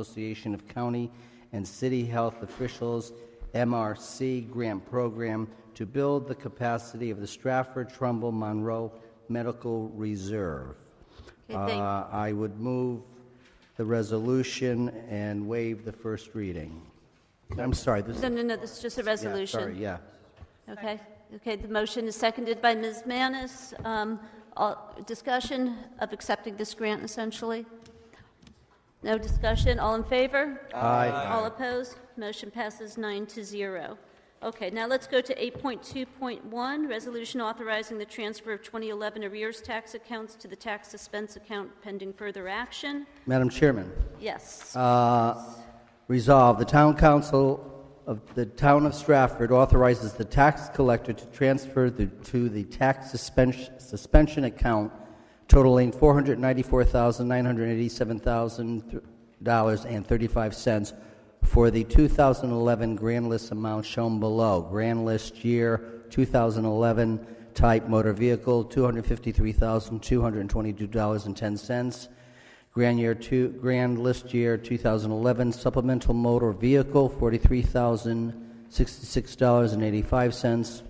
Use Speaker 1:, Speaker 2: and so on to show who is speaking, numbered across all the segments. Speaker 1: Association of County and City Health Officials, MRC Grant Program to build the capacity of the Stratford Trumbull Monroe Medical Reserve.
Speaker 2: Okay, thank-
Speaker 1: Uh, I would move the resolution and waive the first reading. I'm sorry, this is...
Speaker 2: No, no, no, this is just a
Speaker 1: yeah, Sorry,
Speaker 2: resolution.
Speaker 1: yeah.
Speaker 2: Okay, okay, the motion is seconded by Ms. Manis. Um, all- Discussion of accepting this grant essentially? No discussion, all in favor?
Speaker 1: Aye.
Speaker 2: All opposed? Motion passes nine to zero. Okay, now let's go to 8.2.1, resolution authorizing the transfer of 2011 arrears tax accounts to the tax suspense account pending further action.
Speaker 1: Madam Chairman.
Speaker 2: Yes,
Speaker 1: Uh, Resolved, the Town Council of the Town of Stratford authorizes the tax collector to transfer the- to the tax suspension suspension account totaling $494,987,035 for the 2011 grand list amount shown below. Grand list year 2011 type motor vehicle, $253,222.10. Grand year two, grand list year 2011 supplemental motor vehicle, $43,066.85.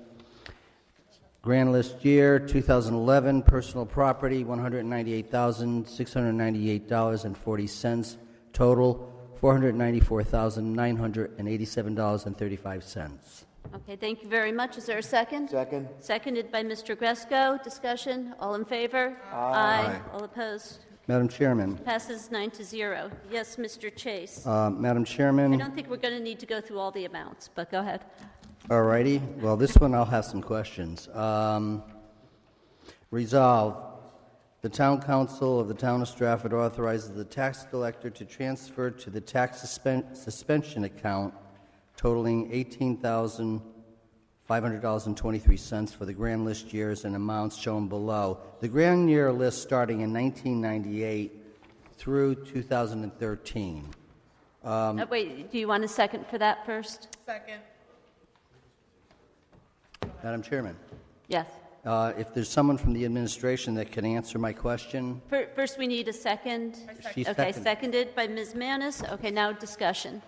Speaker 1: Grand list year 2011 personal property, $198,698.40. Total, $494,987.35.
Speaker 2: okay, thank you very much. Is there a second?
Speaker 3: Second.
Speaker 2: Seconded by Mr. Gresko. Discussion, all in favor? Aye. All opposed?
Speaker 1: Madam Chairman,
Speaker 2: Passes nine to zero. Yes, Mr. Chase.
Speaker 1: uh, Madam
Speaker 2: I
Speaker 1: Chairman,
Speaker 2: don't think we're going to need to go through all the amounts, but go ahead.
Speaker 1: all righty. Well, this one I'll have some questions. Um, Resolve, the Town Council of the Town of Stratford authorizes the tax collector to transfer to the tax suspen- suspension account totaling $18,500.23 for the grand list years and amounts shown below. The grand year list starting in 1998 through 2013.
Speaker 2: Uh, Wait, do you want a second for that first?
Speaker 4: Second.
Speaker 1: Madam Chairman,
Speaker 2: Yes.
Speaker 1: uh, if there's someone from the administration that can answer my question,
Speaker 2: Fir- First, we need a second.
Speaker 1: She
Speaker 2: Okay,
Speaker 1: seconded.
Speaker 2: seconded by Ms. Manis. Okay, now discussion.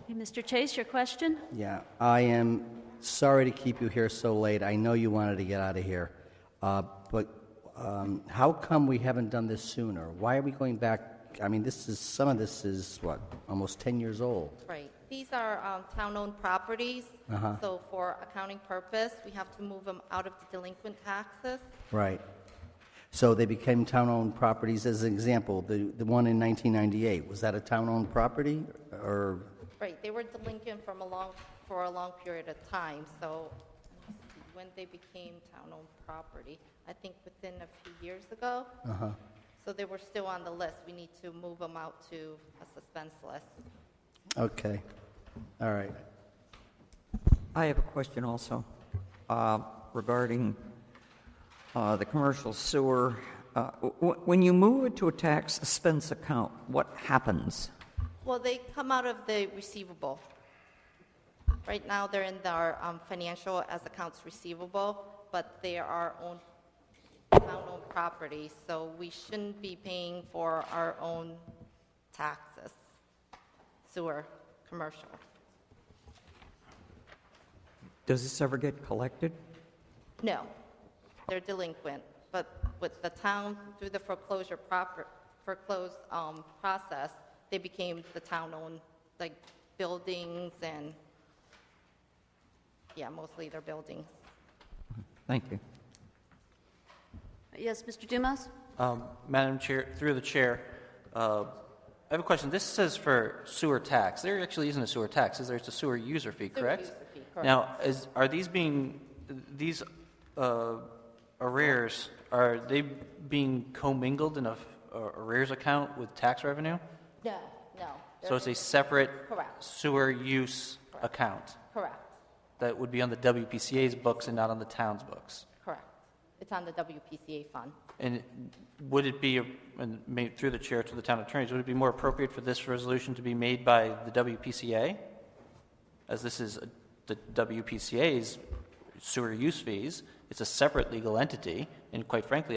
Speaker 2: Okay, Mr. Chase, your question?
Speaker 1: Yeah, I am sorry to keep you here so late. I know you wanted to get out of here. Uh, But um, how come we haven't done this sooner? Why are we going back, I mean, this is, some of this is, what, almost 10 years old?
Speaker 5: Right. These are um, town-owned properties. So for accounting purpose, we have to move them out of the delinquent taxes.
Speaker 1: Right. So they became town-owned properties. As an example, the the one in 1998, was that a town-owned property? Or,
Speaker 5: Right, they were delinquent from a long, for a long period of time, so let me see, when they became town-owned property, I think within a few years ago. So they were still on the list. We need to move them out to a suspense list.
Speaker 1: okay, all right.
Speaker 6: I have a question also uh, regarding uh, the commercial sewer. Uh, w- When you move it to a tax expense account, what happens?
Speaker 5: Well, they come out of the receivable. Right now, they're in our um, financial as accounts receivable, but they are owned, town-owned property, so we shouldn't be paying for our own taxes, sewer, commercial.
Speaker 6: Does this ever get collected?
Speaker 5: No, they're delinquent, but with the town, through the foreclosure proper, foreclosed um, process, they became the town-owned, like, buildings and, yeah, mostly their buildings.
Speaker 6: Thank you.
Speaker 2: Yes, Mr. Dumas?
Speaker 7: Um, Madam Chair, through the chair, uh, I have a question. This says for sewer tax. There actually isn't a sewer tax, is there? It's a sewer user fee, correct?
Speaker 5: user fee, correct.
Speaker 7: Now, is, are these being, these uh, arrears, are they being commingled in a f- a arrears account with tax revenue?
Speaker 5: No, no.
Speaker 7: So it's a separate
Speaker 5: Correct.
Speaker 7: sewer use account
Speaker 5: Correct,
Speaker 7: that would be on the WPCA's books and not on the town's books?
Speaker 5: correct. It's on the WPCA fund.
Speaker 7: And would it be, and made through the chair to the town attorneys, would it be more appropriate for this resolution to be made by the WPCA? As this is uh, the WPCA's sewer use fees, it's a separate legal entity, and quite frankly,